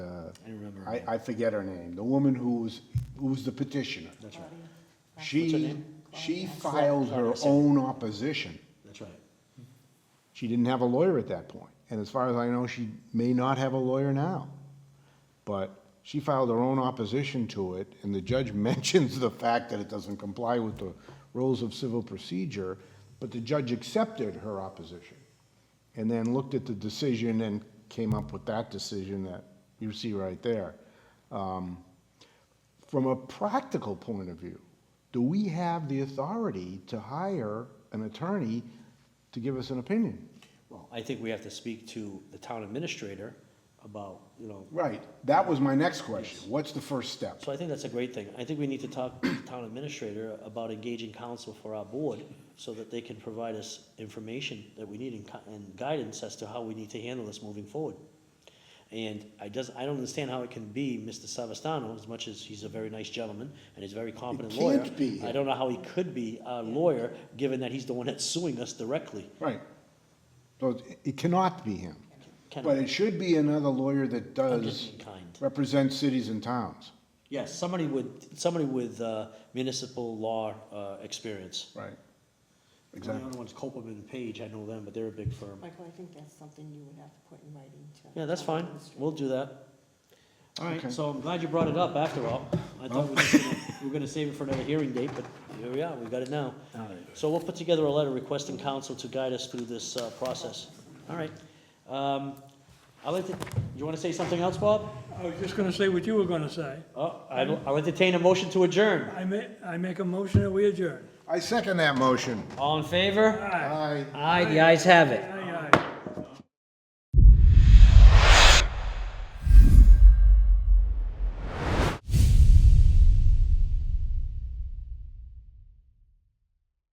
I, I forget her name, the woman who was, who was the petitioner. That's right, What's her She, name? she filed her own opposition. that's right. She didn't have a lawyer at that point, and as far as I know, she may not have a lawyer now. But she filed her own opposition to it, and the judge mentions the fact that it doesn't comply with the rules of civil procedure, but the judge accepted her opposition, and then looked at the decision and came up with that decision that you see right there. Um, From a practical point of view, do we have the authority to hire an attorney to give us an opinion? Well, I think we have to speak to the town administrator about, you know, Right, that was my next question. What's the first step? so I think that's a great thing. I think we need to talk to the town administrator about engaging counsel for our board so that they can provide us information that we need and, co- and guidance as to how we need to handle this moving forward. And I does, I don't understand how it can be Mr. Savastano, as much as he's a very nice gentleman and he's a very competent lawyer. can't be. I don't know how he could be a lawyer, given that he's the one that's suing us directly. Right. So it- it cannot be him, Can- but it should be another lawyer that I'm just does being kind. represent cities and towns. Yes, somebody with, somebody with uh, municipal law uh, experience. Right. The Exactly. other one's Copeland and Page, I know them, but they're a big firm. Michael, I think that's something you would have to put in writing to. Yeah, that's fine, Administrator. we'll do that. All Okay. right, so I'm glad you brought it up after all. I thought we were just gonna- we were gonna save it for another hearing date, but here we are, we got it now. So we'll put together a letter requesting counsel to guide us through this uh, process. All right. Um, I'll let, you want to say something else, Bob? I was just gonna say what you were gonna say. Oh, I'll I'll entertain a motion to adjourn. I ma, I make a motion that we adjourn. I second that motion. All in favor? Aye. Aye. Aye, the ayes have it. Aye.